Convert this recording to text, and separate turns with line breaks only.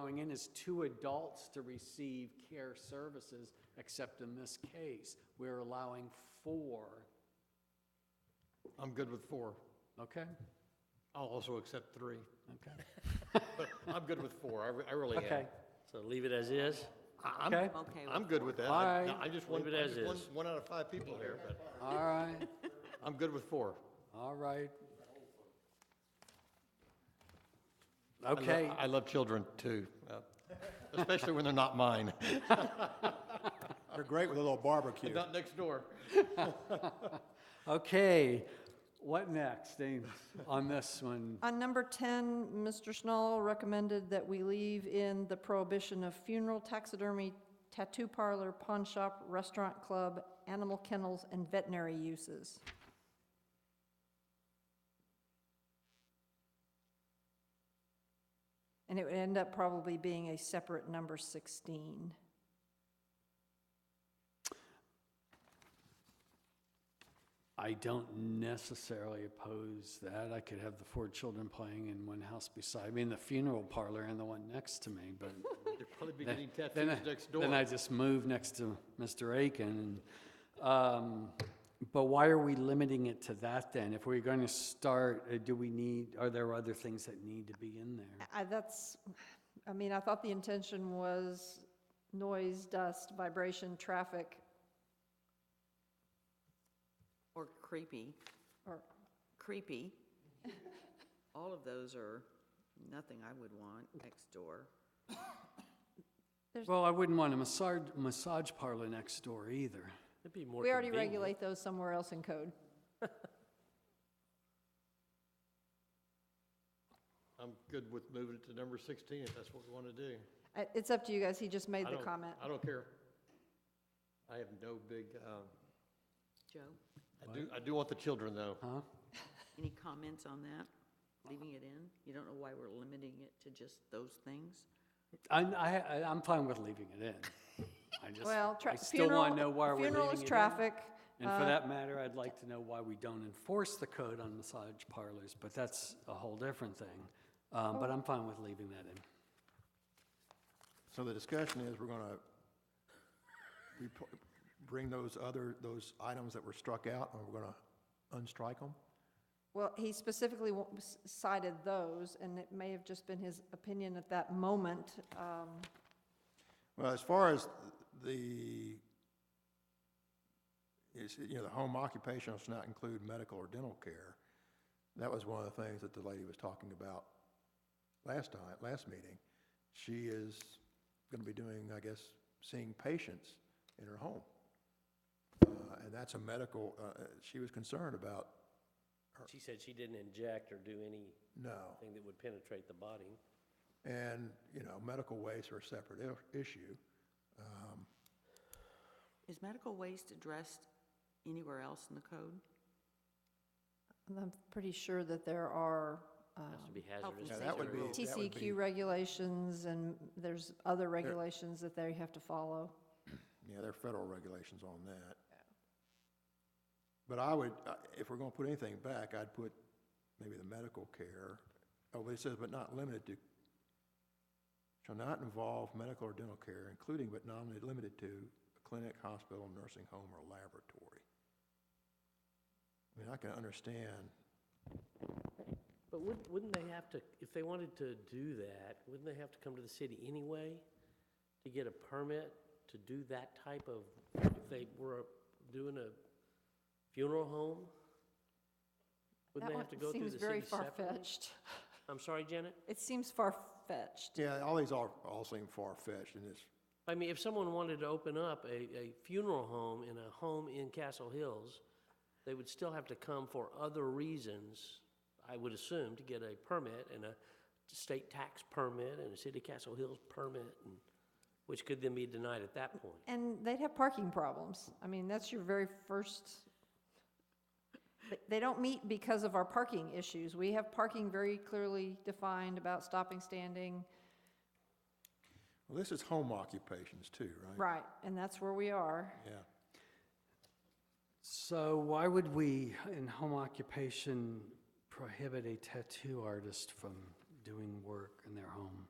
going in is two adults to receive care services, except in this case, we're allowing four,
I'm good with four.
okay?
I'll also accept three.
Okay,
But I'm good with four. I re- I really am.
okay,
So leave it as is?
I- I'm-
Okay.
Okay
I'm
with
good
four.
with that.
All
I
right.
I just want,
Leave it
I
as
just want
is.
one out of five people here, but
all right,
I'm good with four.
all right.
I lo-
Okay,
I love children, too, uh, especially when they're not mine,
They're great with a little barbecue.
not next door.
okay, what next, Ames, on this one?
On number 10, Mr. Schnall recommended that we leave in the prohibition of funeral, taxidermy, tattoo parlor, pawn shop, restaurant club, animal kennels, and veterinary uses. And it would end up probably being a separate number 16.
I don't necessarily oppose that. I could have the four children playing in one house beside me, in the funeral parlor and the one next to me, but
They'd probably be
then-
getting
then
tattoos
I-
next door.
Then I just move next to Mr. Aiken. and, um, But why are we limiting it to that then? If we're going to start, uh, do we need, are there other things that need to be in there?
I, that's, I mean, I thought the intention was noise, dust, vibration, traffic,
Or creepy,
or
creepy. All of those are nothing I would want next door.
Well, I wouldn't want a massage, massage parlor next door either.
It'd be more
We already
convenient.
regulate those somewhere else in code.
I'm good with moving it to number 16 if that's what we want to do.
I- Uh, It's up to you guys, he just made
I
the
don't-
comment.
I don't care. I have no big, um,
Joe,
I do, I do want the children, though.
Huh?
any comments on that? Leaving it in? You don't know why we're limiting it to just those things?
I, I, I- I'm fine with leaving it in. I just,
Well, tra-
I still want to
funeral-
know why we're leaving it in.
Funeral is traffic.
And for
uh,
that matter, I'd like to know why we don't enforce the code on massage parlors, but that's a whole different thing. Um,
Oh.
But I'm fine with leaving that in.
So the discussion is, we're gonna repo- bring those other, those items that were struck out, and we're gonna unstrike them?
Well, he specifically wa- s- cited those, and it may have just been his opinion at that moment. um,
Well, as far as the, is, you know, the home occupation does not include medical or dental care. That was one of the things that the lady was talking about last time, last meeting. She is gonna be doing, I guess, seeing patients in her home. Uh, And that's a medical, uh, uh, she was concerned about,
She said she didn't inject or do anything
no.
that would penetrate the body.
And, you know, medical waste are a separate i- issue.
Is medical waste addressed anywhere else in the code?
and I'm pretty sure that there are um,
Has to be
Health
hazardous.
and
Yeah, that would
safety
be-
rules.
that would be-
TCQ regulations, and there's other regulations that they have to follow.
Yeah, there are federal regulations on that. But I would, uh, if we're gonna put anything back, I'd put maybe the medical care. Oh, but it says, but not limited to, shall not involve medical or dental care, including but not limited to a clinic, hospital, nursing home, or laboratory. I mean, I can understand,
But wouldn't, wouldn't they have to, if they wanted to do that, wouldn't they have to come to the city anyway to get a permit to do that type of, if they were doing a funeral home? Wouldn't
That
they
one
have to go through the
seems
city
very
separately?
far-fetched.
I'm sorry, Janet?
It seems far-fetched.
yeah, all these are, all seem far-fetched and it's,
I mean, if someone wanted to open up a, a funeral home in a home in Castle Hills, they would still have to come for other reasons, I would assume, to get a permit and a state tax permit and a city of Castle Hills permit, and, which could then be denied at that point.
And they'd have parking problems. I mean, that's your very first, but they don't meet because of our parking issues. We have parking very clearly defined about stopping, standing,
well, this is home occupations too, right?
right, and that's where we are.
Yeah.
So why would we, in home occupation, prohibit a tattoo artist from doing work in their home?